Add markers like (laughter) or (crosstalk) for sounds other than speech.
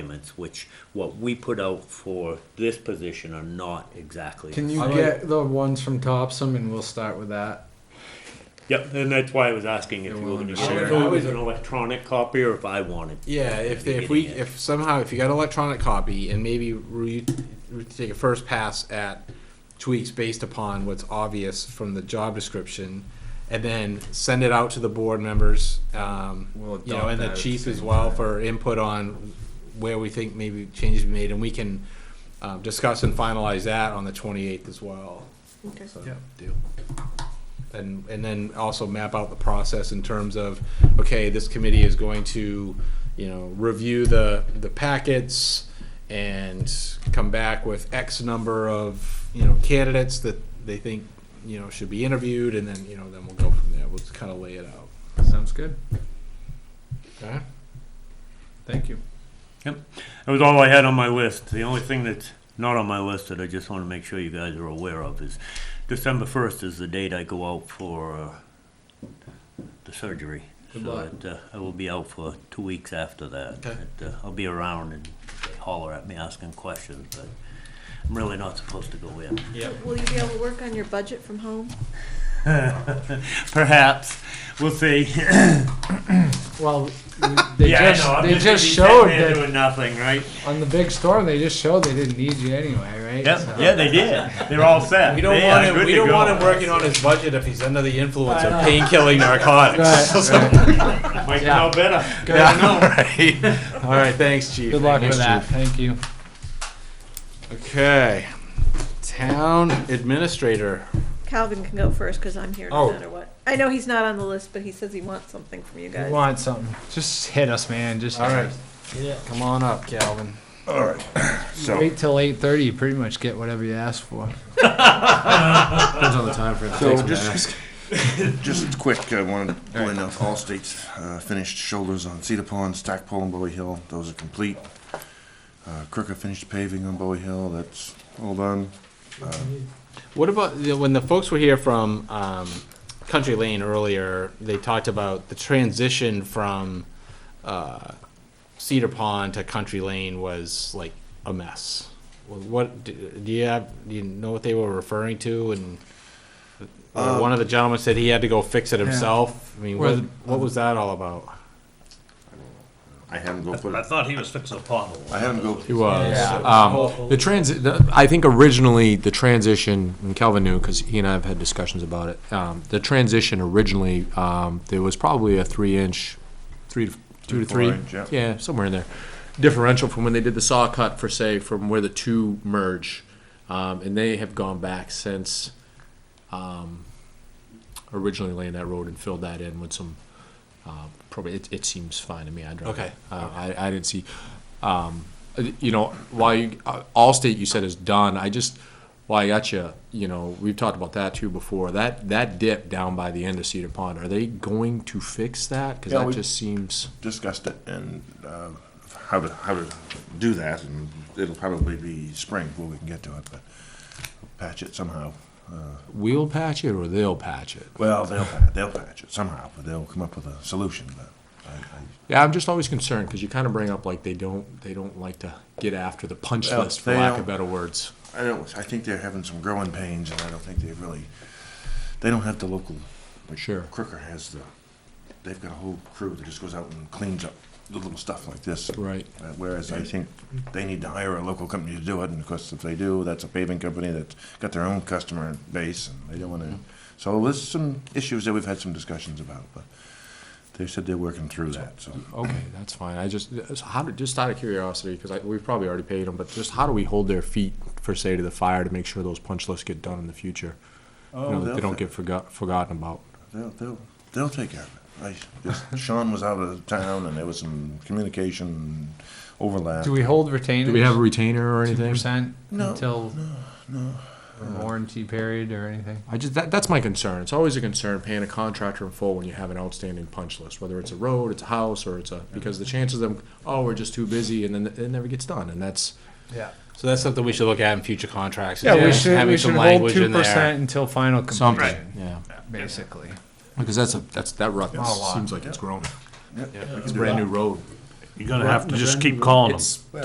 requirements, which what we put out for this position are not exactly. Can you I like- get the ones from Topsom and we'll start with that? Yep, and that's why I was asking if They you were wanted gonna to share share. it with an electronic copy or if I wanted. Yeah, if they, if we if somehow if you got an electronic copy and maybe re, re- take a first pass at tweaks based upon what's obvious from the job description, and then send it out to the board members, um, We'll you know, adopt and the that at the chief as same well time. for input on where we think maybe changes be made, and we can um, discuss and finalize that on the twenty eighth as well. Okay. So, Yep. deal. And, and then also map out the process in terms of, okay, this committee is going to, you know, review the, the packets and come back with X number of, you know, candidates that they think, you know, should be interviewed, and then, you know, then we'll go from there. We'll just kind of lay it out. Sounds good. Okay? Thank you. That was all I had on my list. The only thing that's not on my list that I just wanna make sure you guys are aware of is December first is the date I go out for, uh, the surgery. Good So luck. it, uh, I will be out for two weeks after that. Okay. It, uh, I'll be around and they holler at me asking questions, but I'm really not supposed to go in. Will you be able to work on your budget from home? (laughs) Perhaps, we'll (laughs) see. Well, they just they just showed that doing nothing, right? on the big storm. They just showed they didn't need you anyway, right? Yep, yeah, they did. They're all set. We don't They want are him, good we to don't go. want him working on his budget if he's under the influence of I know. pain-killing (laughs) narcotics. Right, right. Might Yeah. know better. Good. (laughs) (laughs) All right, thanks, chief. Good luck Thanks, with that. Chief. Thank you. Okay. Town administrator. Calvin can go first because I'm here Oh. no matter what. I know he's not on the list, but he says he wants something from you If guys. you want something? Just hit us, man. Just All right. Yeah. Come on up, Calvin. Wait till eight thirty. You pretty much get whatever you ask for. Depends on the time frame. So just, just quick, uh, I wanted to point out, all states uh, finished shoulders on Cedar Pond, Stackpole and Bowie Hill, those are complete. Uh, Crooker finished paving on Bowie Hill, that's all done. What about the- when the folks were here from um, Country Lane earlier? They talked about the transition from uh, Cedar Pond to Country Lane was like a mess. Well, What do do you have? Do you know what they were referring to? And Um, uh, one of the gentlemen said he had to go fix it himself. I mean, Where what, the- what was that all about? I had him go put, I it- thought he was fixing a pothole. I had him go, He was. Yeah. Um, the transi- the, I think originally the transition, and Kelvin knew because he and I have had discussions about it. Um, the transition originally, um, there was probably a three inch, three to two to Four three, inch, yeah. somewhere in there, differential from when they did the saw cut for say from where the two merge, um, and they have gone back since um, originally laying that road and filled that in with some. Uh, probably it, it seems fine to me. I don't. Okay. Uh, I, I didn't see. Um, uh, you know, while you, uh, Allstate you said is done, I just, well, I got you, you know, we've talked about that too before. That, that dip down by the end of Cedar Pond, are they going to fix that? Because Yeah, that we- just seems, discussed it and uh, how to, how to do that, and it'll probably be spring before we can get to it, but patch it somehow. Uh, we'll patch it or they'll patch it. Well, they'll, pa- they'll patch it somehow, but they'll come up with a solution, but I, I Yeah, I'm just always concerned because you kind of bring up like they don't, they don't like to get after the punch Well, list, for they lack don't- of better words. I don't, I think they're having some growing pains, and I don't think they really, they don't have the local, like Sure. Crooker has the, they've got a whole crew that just goes out and cleans up the little stuff like this. Right. Uh, Whereas I think they need to hire a local company to do it, and of course, if they do, that's a paving company that's got their own customer base, and they don't wanna, so there's some issues that we've had some discussions about, but they said they're working through that, so. Okay, that's fine. I just, uh, so how do, just out of curiosity, because we've probably already paid them, but just how do we hold their feet for say to the fire to make sure those punch lists get done in the future? You know, Oh, that they don't get forgot, forgotten about. They'll, they'll, they'll take care of it. I just, Sean was out of town and there was some communication overlap. Do we hold retainers? Do we have a retainer or two anything? percent No, until a warranty period or anything? I just, that, that's my concern. It's always a concern paying a contractor in full when you have an outstanding punch list, whether it's a road, it's a house, or it's a, because the chances of them, oh, we're just too busy, and then it never gets done, and that's, Yeah. So that's something we should look at in future contracts. is Yeah, we just should having we some should hold language two in there. percent until final completion, something, yeah. basically. Because that's a, that's, that rut Not a lot. seems like it's grown. Yep, we can It's a do brand that. new road. You're gonna have to just keep calling them. It's